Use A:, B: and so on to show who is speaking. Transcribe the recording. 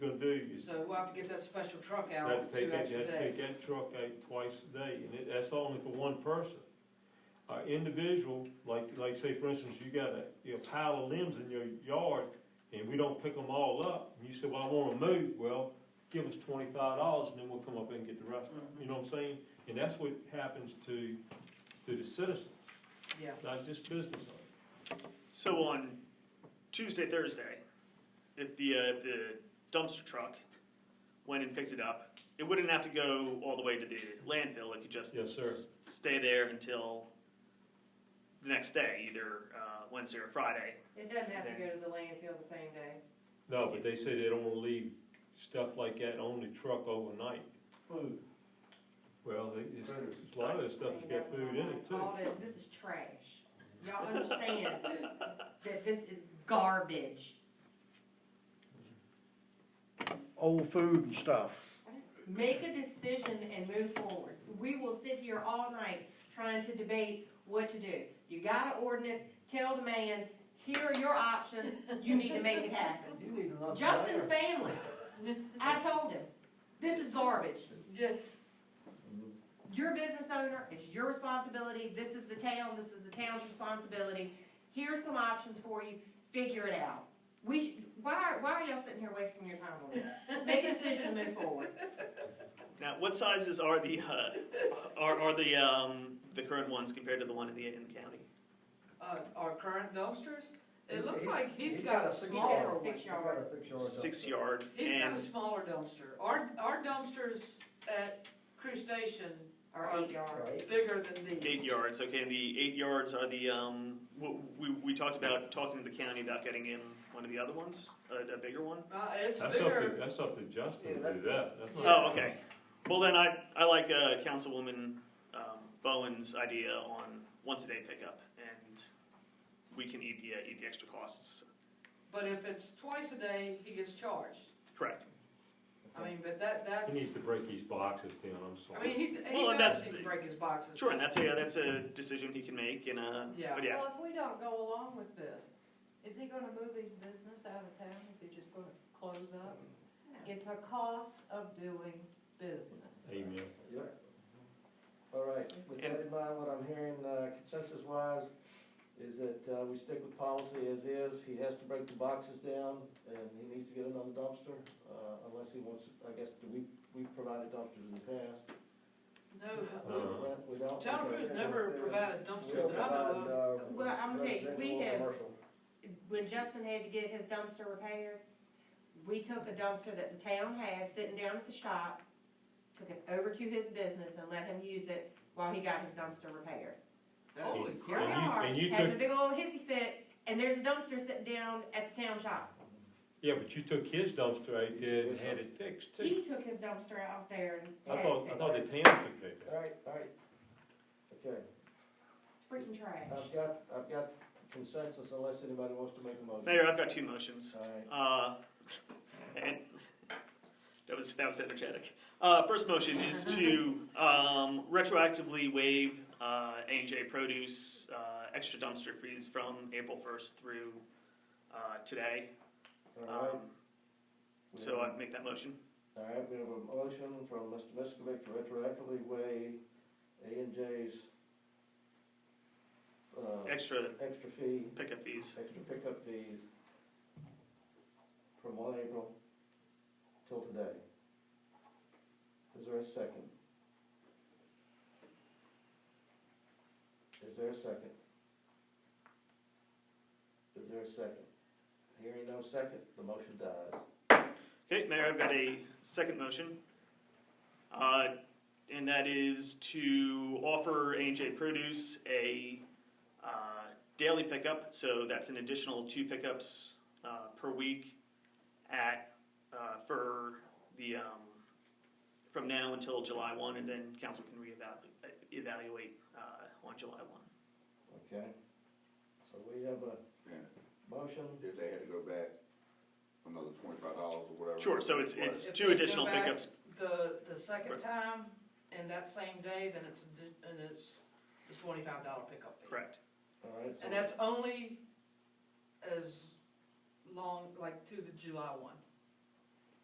A: So we'll have to get that special truck
B: They have
A: out
B: to take
A: two
B: that,
A: extra
B: they have to take
A: days.
B: that truck out twice a day, and it, that's only for one person. An individual, like, like say for instance, you got a, you know, pile of limbs in your yard, and we don't pick them all up, and you say, well, I wanna move, well, give us twenty-five dollars, and then we'll come up and get the rest of
A: Mm-hmm.
B: them, you know what I'm saying? And that's what happens to, to the citizens,
A: Yeah,
B: not just business owners.
C: So on Tuesday, Thursday, if the, uh, if the dumpster truck went and picked it up, it wouldn't have to go all the way to the landfill, it could just
B: Yes, sir.
C: s- stay there until the next day, either, uh, Wednesday or Friday.
D: It doesn't have to go to the landfill the same day.
B: No, but they say they don't wanna leave stuff like that on the truck overnight.
E: Food.
B: Well, they, it's, a lot of this stuff has got food in it too.
D: All this, this is trash. Y'all understand that this is garbage.
F: old food and stuff.
D: Make a decision and move forward. We will sit here all night trying to debate what to do. You got an ordinance, tell the man, here are your options, you need to make it happen.
E: You need another.
D: Justin's
E: layer.
D: family, I told him, this is garbage.
A: yeah,
D: You're a business owner, it's your responsibility, this is the town, this is the town's responsibility, here's some options for you, figure it out. We should, why, why are y'all sitting here wasting your time on this? Make a decision and move forward.
C: Now, what sizes are the, uh, are, are the, um, the current ones compared to the one in the, in the county?
A: uh, our current dumpsters, it
E: He's-
A: looks
E: he's-
A: like he's got a
E: six
D: got a
A: smaller
E: yard.
A: one.
D: six-
E: He's got a six yard.
C: Six yard
A: He's got a
C: and,
A: smaller dumpster. Our, our dumpsters at Crew Station
D: Or eight yards.
E: Right.
A: bigger than these.
C: Eight yards, okay, and the eight yards are the, um, w- we, we talked about talking to the county about getting in one of the other ones, a, a bigger one?
A: Uh, it's
B: That's up to,
A: bigger,
B: that's up to Justin
E: Yeah,
B: to do that. That's not-
C: Oh, okay. Well, then I, I like, uh, Councilwoman, um, Bowen's idea on once a day pickup, and we can eat the, uh, eat the extra costs,
A: but if it's twice a day, he gets charged.
C: correct?
A: I mean, but that, that's,
B: He needs to break these boxes down, I'm
A: I mean,
B: sorry.
A: he, he
C: Well, and that's
A: does need to
C: the-
A: break his boxes.
C: Sure, and that's a, that's a decision he can make, and, uh,
A: Yeah.
C: but yeah,
G: Well, if we don't go along with this, is he gonna move his business out of town? Is he just gonna close up? It's a cost of doing business.
B: Amen.
E: Yep. All right, with that in mind, what I'm hearing consensus wise is that uh, we stick with policy as is. He has to break the boxes down and he needs to get another dumpster, uh, unless he wants, I guess, do we, we've provided dumpsters in the past.
A: No,
B: Uh-huh.
E: We don't.
A: Oh, Town Crew's never provided
E: We don't
A: dumpsters that I know of.
E: provide, uh,
D: Well, I'm gonna tell you, we
E: residential or
D: have-
E: commercial.
D: When Justin had to get his dumpster repaired, we took a dumpster that the town has sitting down at the shop, took it over to his business and let him use it while he got his dumpster repaired. So
A: Holy
D: here we
A: crap.
D: are,
B: And you- and you
D: having
B: took-
D: a big old hissy fit, and there's a dumpster sitting down at the town shop.
B: Yeah, but you took his dumpster out there and had it fixed too.
D: He took his dumpster out there and had
B: I
D: it
B: thought, I thought
D: fixed.
B: the town took that.
E: All right, all right. Okay,
D: It's freaking trash.
E: I've got, I've got consensus unless anybody wants to make a motion.
C: Mayor, I've got two motions.
E: All right,
C: Uh, and that was that was energetic. Uh, first motion is to um, retroactively waive uh, A&J Produce uh, extra dumpster fees from April first through uh, today.
E: all right.
C: Um, so I'd make that motion.
E: All right, we have a motion from Mr. Miskovic to retroactively waive A and J's uh,
C: Extra
E: extra fee,
C: pickup fees.
E: extra pickup fees from one April till today. Is there a second? Is there a second? Is there a second? Hearing no second, the motion dies.
C: Okay, Mayor, I've got a second motion. Uh, and that is to offer A&J Produce a uh, daily pickup, so that's an additional two pickups uh, per week at, uh, for the, um, from now until July 1, and then council can reevaluate, evaluate uh, on July 1.
E: Okay, so we have a
H: And
E: motion,
H: if they had to go back another twenty-five dollars or whatever.
C: Sure, so it's, it's
A: If
C: two
A: they go
C: additional
A: back-
C: pickups.
A: The, the second time and that same day, then it's, a di- and it's the twenty-five dollar pickup fee.
C: Correct.
E: alright, so.
A: And that's only as long, like to the July one.